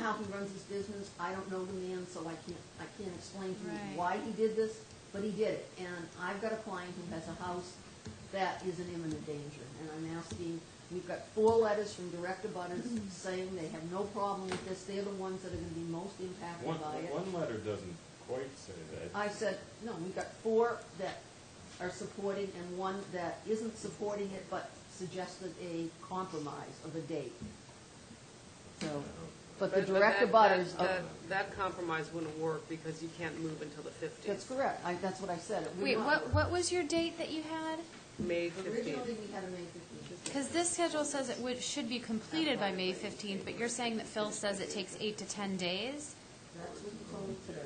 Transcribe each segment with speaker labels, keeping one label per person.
Speaker 1: he runs his business, I don't know the man, so I can't, I can't explain to you
Speaker 2: Right.
Speaker 1: why he did this, but he did it. And I've got a client who has a house that is in imminent danger, and I'm asking, we've got four letters from direct abutters
Speaker 3: Mm-hmm.
Speaker 1: saying they have no problem with this, they're the ones that are gonna be most
Speaker 4: One,
Speaker 1: impacted by it.
Speaker 4: one letter doesn't quite say that.
Speaker 1: I said, no, we've got four that are supporting and one that isn't supporting it, but suggested a compromise of a date. So, but the direct
Speaker 3: that-
Speaker 1: abutters,
Speaker 3: that-
Speaker 1: are-
Speaker 3: that- That compromise wouldn't work because you can't move until the
Speaker 1: that's
Speaker 3: fifteenth,
Speaker 1: correct, I, that's what I said. We
Speaker 2: Wait,
Speaker 1: want-
Speaker 2: what, what was your date that you had?
Speaker 3: May
Speaker 1: Originally,
Speaker 3: fifteenth.
Speaker 1: we had a May fifteenth.
Speaker 2: Because this schedule says it would, should be completed by May 15th, but you're saying that Phil says it takes eight to 10 days?
Speaker 1: That's what you told me today.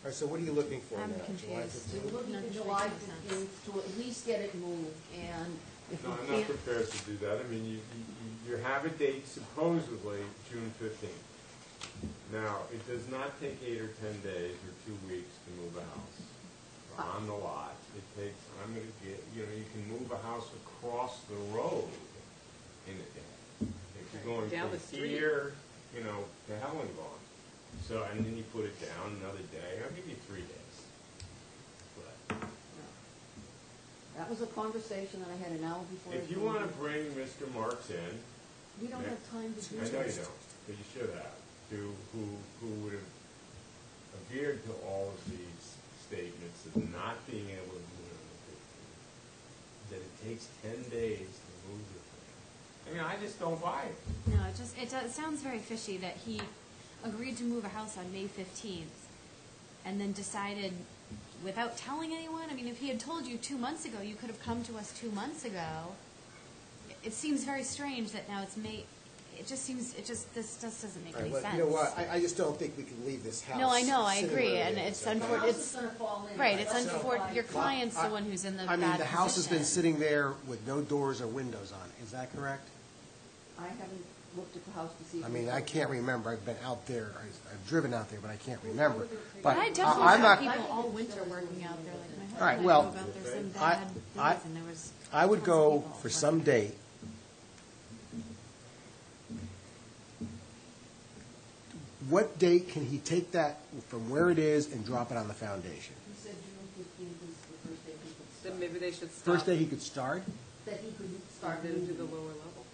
Speaker 5: All right, so what are you looking for now?
Speaker 2: I'm
Speaker 5: July
Speaker 2: confused.
Speaker 5: 15th?
Speaker 1: We were looking
Speaker 2: No,
Speaker 1: at
Speaker 2: it
Speaker 1: July
Speaker 2: makes sense.
Speaker 1: fifteenth to at least get it moved, and if
Speaker 4: No,
Speaker 1: we
Speaker 4: I'm
Speaker 1: can't.
Speaker 4: not prepared to do that. I mean, you, you- you, you have a date supposedly June fifteenth. Now, it does not take eight or ten days or two weeks to move a house on the lot. It takes, I'm gonna get, you know, you can move a house across the road in a day. If you're going
Speaker 3: Down the
Speaker 4: from
Speaker 3: street.
Speaker 4: here, you know, to Helenbaugh. So, and then you put it down another day, I'll give you three days. But
Speaker 1: That was a conversation that I had an hour before.
Speaker 4: If
Speaker 1: the
Speaker 4: you
Speaker 1: meeting.
Speaker 4: wanna bring Mr. Marks in,
Speaker 1: We don't have time to do
Speaker 4: I
Speaker 1: this.
Speaker 4: know you don't, but you should have, to, who, who would have adhered to all of these statements of not being able to move on the fifteenth, that it takes ten days to move the thing. I mean, I just don't buy it.
Speaker 2: No, it just, it does, sounds very fishy that he agreed to move a house on May 15th and then decided without telling anyone. I mean, if he had told you two months ago, you could have come to us two months ago. It- It seems very strange that now it's May, it just seems, it just, this just doesn't make
Speaker 5: All right,
Speaker 2: any
Speaker 5: well,
Speaker 2: sense.
Speaker 5: You know what, I, I just don't think we can leave this house.
Speaker 2: No, I know, I
Speaker 5: sitting
Speaker 2: agree,
Speaker 5: where it
Speaker 2: and
Speaker 5: is.
Speaker 2: it's
Speaker 5: I
Speaker 1: The
Speaker 5: think-
Speaker 2: unfor-
Speaker 1: house
Speaker 2: it's-
Speaker 1: is gonna fall in.
Speaker 2: Right, it's
Speaker 1: That's not
Speaker 2: unfortunate,
Speaker 1: why-
Speaker 2: your client's the one who's in the bad
Speaker 6: I
Speaker 2: position.
Speaker 6: mean, the house has been sitting there with no doors or windows on it, is that correct?
Speaker 1: I haven't looked at the house to see. if
Speaker 6: I mean,
Speaker 1: it's-
Speaker 6: I can't remember, I've been out there, I- I've driven out there, but I can't remember.
Speaker 2: But
Speaker 6: But
Speaker 2: I
Speaker 6: I-
Speaker 2: definitely
Speaker 6: I'm
Speaker 2: saw
Speaker 6: not,
Speaker 2: people all winter working out there, like, my husband.
Speaker 6: All right,
Speaker 2: and I
Speaker 6: well,
Speaker 2: drove out there some
Speaker 6: I-
Speaker 2: bad
Speaker 6: I-
Speaker 2: days, and there was
Speaker 6: I would
Speaker 2: tons of
Speaker 6: go
Speaker 2: people,
Speaker 6: for
Speaker 2: but-
Speaker 6: some date. What date can he take that from where it is and drop it on the foundation?
Speaker 1: He said June fifteenth is the first day he could
Speaker 3: Then
Speaker 1: start,
Speaker 3: maybe they should stop.
Speaker 6: First day he could start?
Speaker 1: that he could
Speaker 3: Start
Speaker 1: start
Speaker 3: then do the
Speaker 1: moving.
Speaker 3: lower level.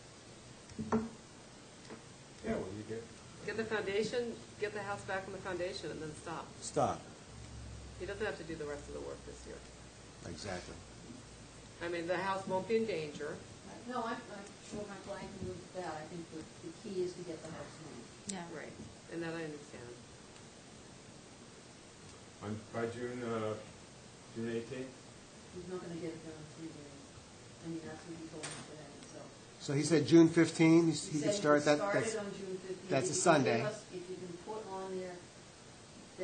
Speaker 4: Yeah, well, you get,
Speaker 3: Get the foundation, get the house back on the foundation and then stop.
Speaker 6: Stop.
Speaker 3: He doesn't have to do the rest of the work this year.
Speaker 6: Exactly.
Speaker 3: I mean, the house won't be in danger.
Speaker 1: No, I'm, I'm sure my client can move that, I think the, the key is to get the house moved.
Speaker 2: Yeah.
Speaker 3: Right. And that I understand.
Speaker 4: on, by June, uh, June eighteenth?
Speaker 1: He's not gonna get it done in three days, I mean, that's what he told me today, so.
Speaker 6: So he said June 15, he- he
Speaker 1: said
Speaker 6: could start that,
Speaker 1: start
Speaker 6: that's,
Speaker 1: it on June fifteenth.
Speaker 6: that's a Sunday.
Speaker 1: If you can put on there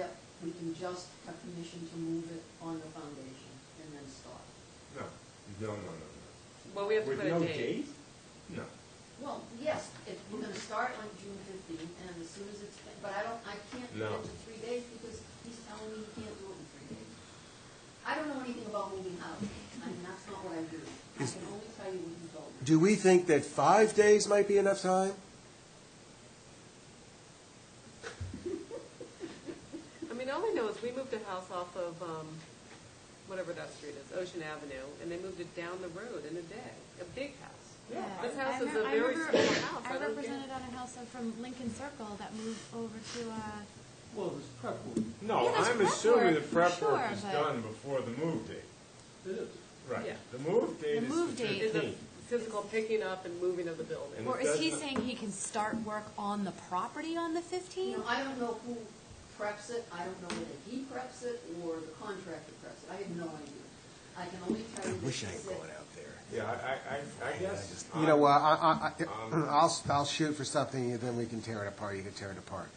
Speaker 1: that we can just have permission to move it on the foundation and then start.
Speaker 4: No, no, no, no, no.
Speaker 3: Well, we have to
Speaker 4: With
Speaker 3: put a date.
Speaker 4: no date? No.
Speaker 1: Well, yes, if we're gonna start on June fifteenth, and as soon as it's, but I don't, I can't commit
Speaker 4: No.
Speaker 1: to three days, because he's telling me he can't do it in three days. I don't know anything about moving houses, I mean, that's not what I do, I can only tell you what he told me.
Speaker 6: do we think that five days might be enough time?
Speaker 3: I mean, all I know is we moved a house off of, um, whatever that street is, Ocean Avenue, and they moved it down the road in a day, a big house.
Speaker 2: Yeah.
Speaker 3: This house
Speaker 2: I
Speaker 3: is
Speaker 2: rem-
Speaker 3: a
Speaker 2: I
Speaker 3: very
Speaker 2: remember-
Speaker 3: small house. I
Speaker 2: I
Speaker 3: don't get it.
Speaker 2: represented on a house from Lincoln Circle that moved over to, uh,
Speaker 7: Well, it was prep work.
Speaker 4: No,
Speaker 2: Yeah, there's
Speaker 4: I'm
Speaker 2: prep
Speaker 4: assuming the
Speaker 2: work,
Speaker 4: prep
Speaker 2: sure,
Speaker 4: work is
Speaker 2: but-
Speaker 4: done before the move date.
Speaker 7: It is.
Speaker 4: Right.
Speaker 3: Yeah.
Speaker 4: The move date
Speaker 2: The
Speaker 4: is the
Speaker 2: move date
Speaker 3: It's a
Speaker 4: fifteenth.
Speaker 3: physical picking up and moving of the building.
Speaker 4: And
Speaker 2: or
Speaker 4: it
Speaker 2: is he
Speaker 4: does not-
Speaker 2: saying he can start work on the property on the
Speaker 1: You know,
Speaker 2: 15th?
Speaker 1: I don't know who preps it, I don't know whether he preps it or the contractor preps it, I have no idea. I can only tell you that
Speaker 6: Wish
Speaker 1: he
Speaker 6: I ain't
Speaker 1: said-
Speaker 6: going out there.
Speaker 4: Yeah, I, I- I, I guess.
Speaker 6: You know
Speaker 4: I'm-
Speaker 6: what, I, I, I- I'll, I'll shoot for something, and then we can tear it apart, you can tear it apart.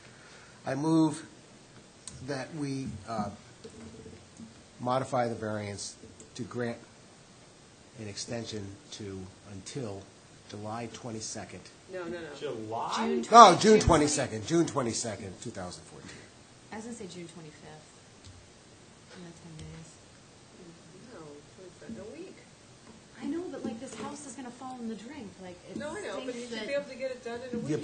Speaker 6: I move that we uh, modify the variance to grant an extension to, until July 22nd.
Speaker 3: No, no, no.
Speaker 4: July?
Speaker 6: Oh, June 22nd, June 22nd, 2014.
Speaker 2: I was gonna say June 25th. In the 10 days.
Speaker 3: No, it's in a week.
Speaker 2: I know, but like, this house is gonna fall in the drink, like, it
Speaker 3: No, I know, but you
Speaker 2: stinks
Speaker 3: should
Speaker 2: that-
Speaker 3: be able to get it done in a week.
Speaker 6: Yeah,